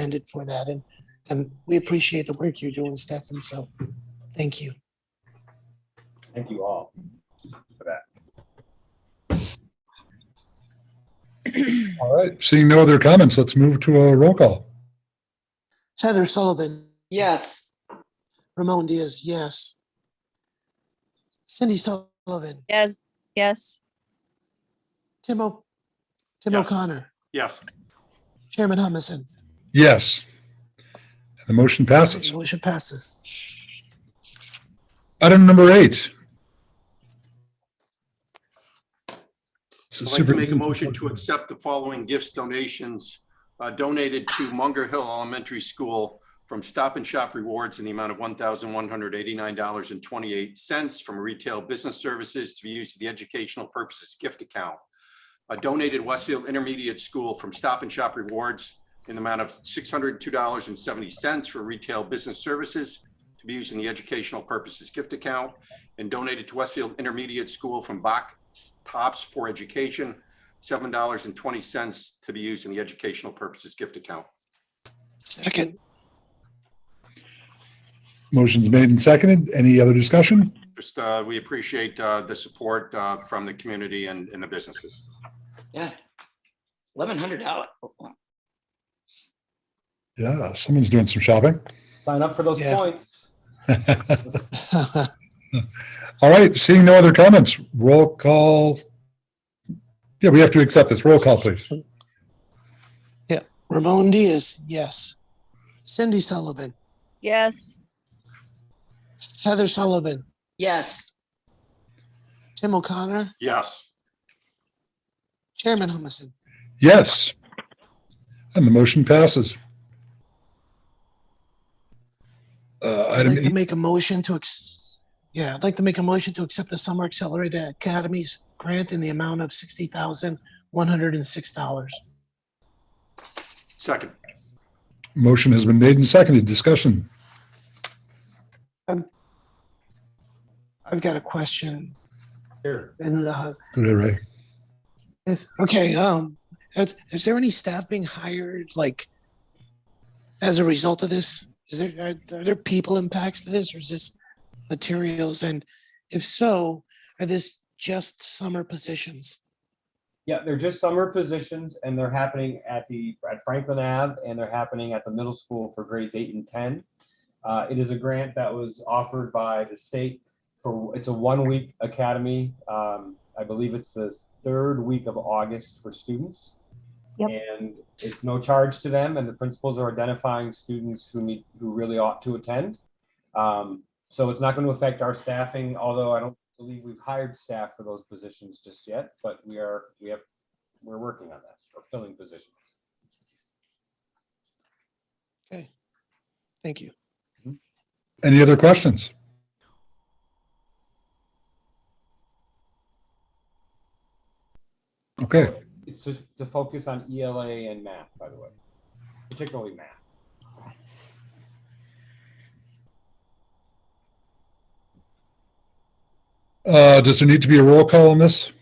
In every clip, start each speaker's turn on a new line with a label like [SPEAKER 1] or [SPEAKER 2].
[SPEAKER 1] intended for that. And, and we appreciate the work you're doing, Stefan. So thank you.
[SPEAKER 2] Thank you all for that.
[SPEAKER 3] All right, seeing no other comments, let's move to a roll call.
[SPEAKER 1] Heather Sullivan,
[SPEAKER 4] Yes.
[SPEAKER 1] Ramon Diaz, yes. Cindy Sullivan,
[SPEAKER 5] Yes, yes,
[SPEAKER 1] Tim, O- Tim
[SPEAKER 6] Yes.
[SPEAKER 1] O'Connor,
[SPEAKER 6] Yes.
[SPEAKER 1] Chairman Humison.
[SPEAKER 3] Yes. And the motion passes.
[SPEAKER 1] Motion passes.
[SPEAKER 3] Item number eight. This is
[SPEAKER 6] I'd like to
[SPEAKER 3] super-
[SPEAKER 6] make a motion to accept the following gifts donations uh, donated to Munger Hill Elementary School from Stop and Shop Rewards in the amount of one thousand one hundred eighty-nine dollars and twenty-eight cents from Retail Business Services to be used for the Educational Purposes Gift Account. A donated Westfield Intermediate School from Stop and Shop Rewards in the amount of six hundred two dollars and seventy cents for Retail Business Services to be used in the Educational Purposes Gift Account and donated to Westfield Intermediate School from Bach Tops for Education, seven dollars and twenty cents to be used in the educational purposes gift account.
[SPEAKER 1] Second,
[SPEAKER 3] Motion's made and seconded. Any other discussion?
[SPEAKER 6] Just, uh, we appreciate, uh, the support, uh, from the community and, and the businesses.
[SPEAKER 4] Yeah. Eleven hundred dollars.
[SPEAKER 3] Yeah, someone's doing some shopping.
[SPEAKER 2] Sign up for those
[SPEAKER 1] Yeah.
[SPEAKER 2] points.
[SPEAKER 3] All right, seeing no other comments, roll call. Yeah, we have to accept this. Roll call, please.
[SPEAKER 1] Ramon Diaz, yes. Cindy Sullivan,
[SPEAKER 5] yes,
[SPEAKER 1] Heather Sullivan,
[SPEAKER 4] Yes.
[SPEAKER 1] Tim O'Connor,
[SPEAKER 6] Yes.
[SPEAKER 1] Chairman Humison.
[SPEAKER 3] Yes. And the motion passes. Uh,
[SPEAKER 1] I'd
[SPEAKER 3] item
[SPEAKER 1] like to
[SPEAKER 3] eight,
[SPEAKER 1] make a motion to, ex- yeah, I'd like to make a motion to accept the Summer Accelerated Academies grant in the amount of sixty thousand, one hundred and six dollars.
[SPEAKER 6] Second,
[SPEAKER 3] motion has been made and seconded. Discussion.
[SPEAKER 1] I've got a question. Sure. And, uh,
[SPEAKER 3] Go ahead, Ray.
[SPEAKER 1] is, okay, um, is, is there any staff being hired, like, as a result of this? Is there, are, are there people impacts to this, or is this materials? And if so, are this just summer positions?
[SPEAKER 2] Yeah, they're just summer positions and they're happening at the, at Franklin Ave and they're happening at the middle school for grades eight and ten. Uh, it is a grant that was offered by the state for, it's a one-week academy. Um, I believe it's the third week of August for students. And it's no charge to them and the principals are identifying students who need, who really ought to attend. Um, so it's not going to affect our staffing, although I don't believe we've hired staff for those positions just yet, but we are, we have, we're working on that, or filling positions.
[SPEAKER 1] Okay, thank you.
[SPEAKER 3] Any other questions? Okay,
[SPEAKER 2] It's to, to focus on ELA and math, by the way, particularly math.
[SPEAKER 3] uh, does there need to be a roll call on this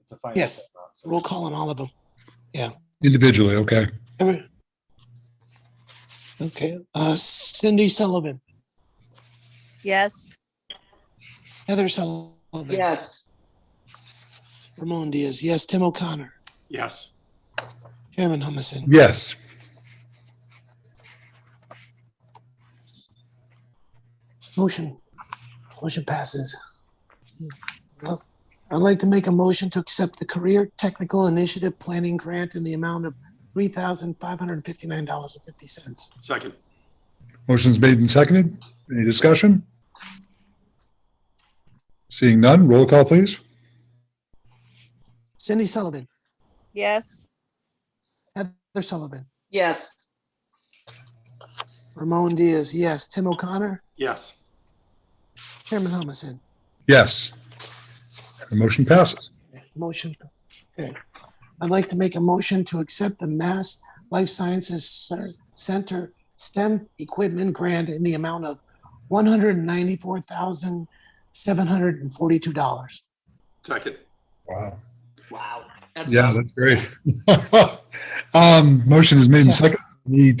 [SPEAKER 2] It's a finance.
[SPEAKER 1] Yes.
[SPEAKER 2] account, so-
[SPEAKER 1] Roll call on all of them.
[SPEAKER 3] individually? Okay.
[SPEAKER 1] Every. Okay, uh, Cindy Sullivan,
[SPEAKER 5] yes,
[SPEAKER 1] Heather Sullivan,
[SPEAKER 4] Yes.
[SPEAKER 1] Ramon Diaz, yes, Tim O'Connor,
[SPEAKER 6] yes.
[SPEAKER 1] Chairman Humison.
[SPEAKER 3] Yes.
[SPEAKER 1] Motion, motion passes. Well, I'd like to make a motion to accept the Career Technical Initiative Planning Grant in the amount of three thousand five hundred and fifty-nine dollars and fifty cents.
[SPEAKER 6] Second,
[SPEAKER 3] Motion's made and seconded. Any discussion? Seeing none, roll call, please.
[SPEAKER 1] Cindy Sullivan,
[SPEAKER 5] yes,
[SPEAKER 1] Heather Sullivan,
[SPEAKER 4] Yes.
[SPEAKER 1] Ramon Diaz, yes, Tim O'Connor,
[SPEAKER 6] yes.
[SPEAKER 1] Chairman Humison.
[SPEAKER 3] Yes. The motion passes.
[SPEAKER 1] Motion, okay. I'd like to make a motion to accept the Mass Life Sciences Cer- Center STEM Equipment Grant in the amount of one hundred and ninety-four thousand, seven hundred and forty-two dollars.
[SPEAKER 6] Second,
[SPEAKER 3] Wow.
[SPEAKER 4] Wow. That's
[SPEAKER 3] Yeah, that's great. Um, motion is made and seconded. Need